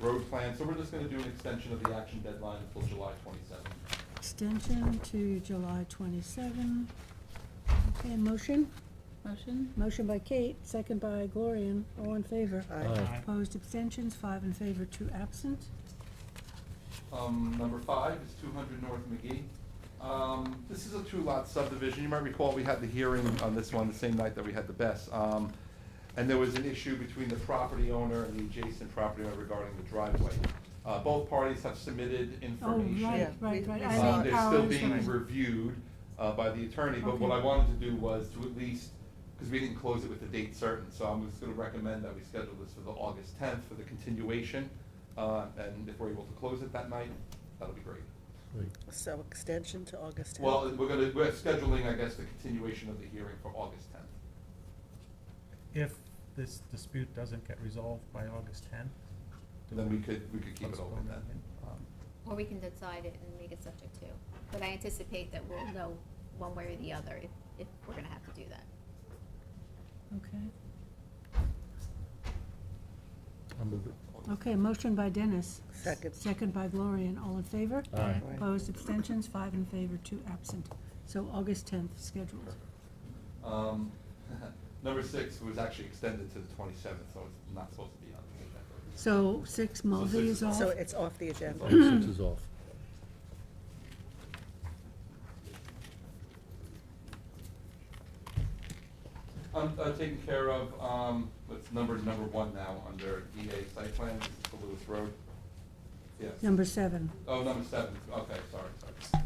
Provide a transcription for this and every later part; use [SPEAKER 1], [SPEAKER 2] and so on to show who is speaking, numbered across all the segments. [SPEAKER 1] road plan, so we're just gonna do an extension of the action deadline until July twenty-seventh.
[SPEAKER 2] Extension to July 27. Okay, motion?
[SPEAKER 3] Motion?
[SPEAKER 2] Motion by Kate, second by Gloria. All in favor?
[SPEAKER 4] Aye.
[SPEAKER 2] Opposed, abstentions, five in favor, two absent.
[SPEAKER 1] Um, number five is two hundred North McGee. Um, this is a two-lot subdivision. You might recall, we had the hearing on this one the same night that we had the best. Um, and there was an issue between the property owner and the adjacent property owner regarding the driveway. Uh, both parties have submitted
[SPEAKER 2] Oh,
[SPEAKER 1] information.
[SPEAKER 2] right,
[SPEAKER 4] Yeah,
[SPEAKER 2] right,
[SPEAKER 4] we-
[SPEAKER 2] right.
[SPEAKER 4] we
[SPEAKER 2] I
[SPEAKER 4] saw
[SPEAKER 1] Uh,
[SPEAKER 2] know
[SPEAKER 4] it.
[SPEAKER 1] They're still
[SPEAKER 2] Powers,
[SPEAKER 1] being
[SPEAKER 2] right.
[SPEAKER 1] reviewed uh, by the attorney, but what
[SPEAKER 2] Okay.
[SPEAKER 1] I wanted to do was to at least, because we didn't close it with a date certain, so I'm just gonna recommend that we schedule this for the August tenth for the continuation. uh, And if we're able to close it that night, that'll be great.
[SPEAKER 4] So extension to August 10th.
[SPEAKER 1] Well, we're gonna, we're scheduling, I guess, the continuation of the hearing for August tenth.
[SPEAKER 5] If this dispute doesn't get resolved by August tenth?
[SPEAKER 1] Then we could, we could keep it open
[SPEAKER 5] Postpone
[SPEAKER 1] then.
[SPEAKER 5] it.
[SPEAKER 1] Um,
[SPEAKER 3] Or we can decide it and make it subject to, but I anticipate that we'll know one way or the other if, if we're gonna have to do that.
[SPEAKER 2] Okay.
[SPEAKER 6] I'll move it.
[SPEAKER 1] August
[SPEAKER 2] Okay, motion by Dennis.
[SPEAKER 4] Second.
[SPEAKER 2] Second by Gloria. All in favor?
[SPEAKER 6] Aye.
[SPEAKER 2] Opposed, abstentions, five in favor, two absent. So August 10th scheduled.
[SPEAKER 1] Um, Number six was actually extended to the twenty-seventh, so it's not supposed to be on the agenda.
[SPEAKER 2] So six Mulvey is off.
[SPEAKER 4] So it's off the agenda.
[SPEAKER 6] Item six is off.
[SPEAKER 1] Um, uh, taken care of, um, it's number, number one now, under EA site plan, this is the Lewis Road. Yes.
[SPEAKER 2] Number seven.
[SPEAKER 1] Oh, number seven, okay, sorry, sorry.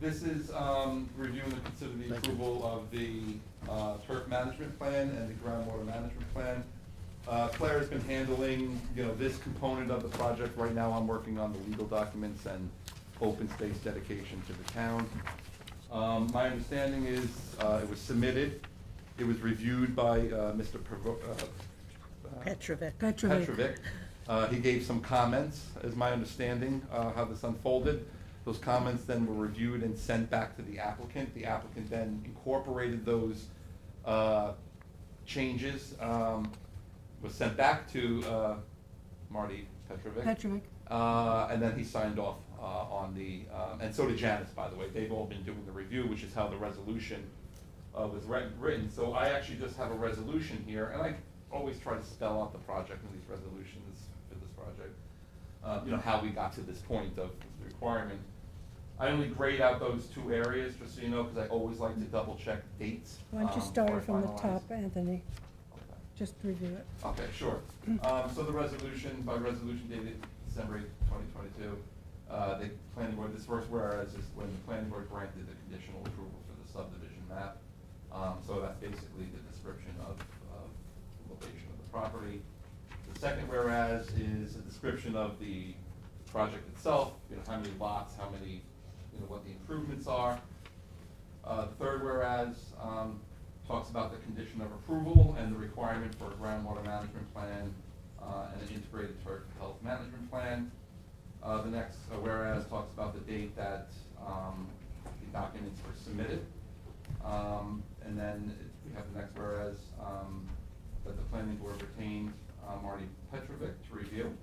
[SPEAKER 1] This is, um, reviewing and considering the
[SPEAKER 6] Thank you.
[SPEAKER 1] approval of the, uh, turf management plan and the groundwater management plan. Uh, Claire's been handling, you know, this component of the project, right now I'm working on the legal documents and open space dedication to the town. Um, my understanding is, uh, it was submitted, it was reviewed by, uh, Mr. Pervo- uh, uh,
[SPEAKER 4] Petrovic.
[SPEAKER 2] Petrovic.
[SPEAKER 1] Petrovic. Uh, He gave some comments, is my understanding, uh, how this unfolded. Those comments then were reviewed and sent back to the applicant. The applicant then incorporated those uh, changes, um, was sent back to uh, Marty Petrovic.
[SPEAKER 2] Petrovic.
[SPEAKER 1] Uh, and then he signed off, uh, on the, um, and so did Janice, by the way, they've all been doing the review, which is how the resolution, uh, was writ- written, so I actually just have a resolution here, and I always try to spell out the project in these resolutions for this project. Uh, you know, how we got to this point of the requirement. I only grade out those two areas, just so you know, cause I always like to double check dates.
[SPEAKER 2] Why don't you
[SPEAKER 1] um,
[SPEAKER 2] start
[SPEAKER 1] before
[SPEAKER 2] it from
[SPEAKER 1] I
[SPEAKER 2] the
[SPEAKER 1] finalize.
[SPEAKER 2] top, Anthony?
[SPEAKER 1] Okay.
[SPEAKER 2] Just review it.
[SPEAKER 1] Okay, sure. Um, so the resolution, by resolution dated December twenty twenty-two, uh, the planning board, this first whereas is when the planning board granted the conditional approval for the subdivision map. Um, so that's basically the description of, of the location of the property. The second whereas is a description of the project itself, you know, how many lots, how many, you know, what the improvements are. Uh, the third whereas, um, talks about the condition of approval and the requirement for a groundwater management plan, uh, and an integrated turf health management plan. Uh, the next uh, whereas talks about the date that, um, the documents were submitted. Um, and then it- we have the next whereas, um, that the planning board retained, uh, Marty Petrovic to review.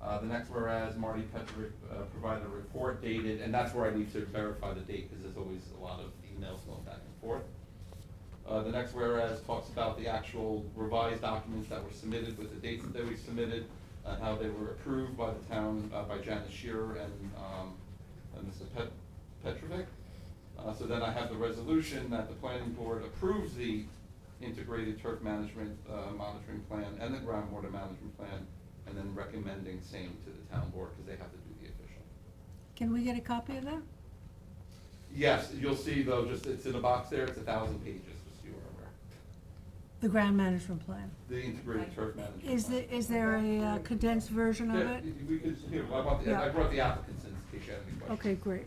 [SPEAKER 1] Uh, the next whereas, Marty Petrick, uh, provided a report dated, and that's where I need to verify the date, because there's always a lot of emails going back and forth. Uh, the next whereas talks about the actual revised documents that were submitted with the dates that we submitted, and how they were approved by the town, uh, by Janice Shearer and, um, and Mr. Pet- Petrovic. Uh, so then I have the resolution that the planning board approves the integrated turf management, uh, monitoring plan and the groundwater management plan, and then recommending same to the town board, because they have to do the official.
[SPEAKER 2] Can we get a copy of that?
[SPEAKER 1] Yes, you'll see though, just, it's in a box there, it's a thousand pages, just so you are aware.
[SPEAKER 2] The ground management plan.
[SPEAKER 1] The integrated turf management.
[SPEAKER 2] Is
[SPEAKER 1] plan.
[SPEAKER 2] the, is there a uh, condensed version of
[SPEAKER 1] Yeah,
[SPEAKER 2] it?
[SPEAKER 1] we could, here, I want, the- I
[SPEAKER 2] Yeah.
[SPEAKER 1] brought the applicants in, in case you had any questions.
[SPEAKER 2] Okay, great.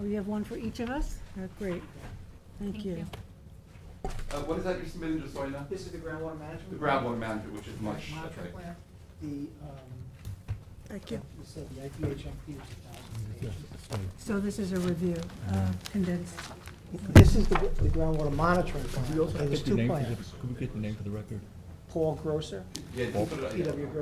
[SPEAKER 2] Oh, you have one for each of us? Uh, Great. Thank
[SPEAKER 3] Thank
[SPEAKER 2] you.
[SPEAKER 3] you.
[SPEAKER 1] Uh, what is that you're submitting, just so I know?
[SPEAKER 7] This is the groundwater management?
[SPEAKER 1] The groundwater management, which is much, that's right.
[SPEAKER 7] Monitoring plan. The, um,
[SPEAKER 4] Thank you.
[SPEAKER 7] we said the IPHMP was a thousand pages.
[SPEAKER 2] So this is a review, uh, condensed.
[SPEAKER 7] This is the the groundwater monitoring plan.
[SPEAKER 6] Could we also
[SPEAKER 7] There's
[SPEAKER 6] get the
[SPEAKER 7] two
[SPEAKER 6] name for
[SPEAKER 7] plans.
[SPEAKER 6] the, could we get the name for the record?
[SPEAKER 7] Paul Grosser,
[SPEAKER 1] Yeah, just put it up, yeah.
[SPEAKER 7] P.W. Grosser.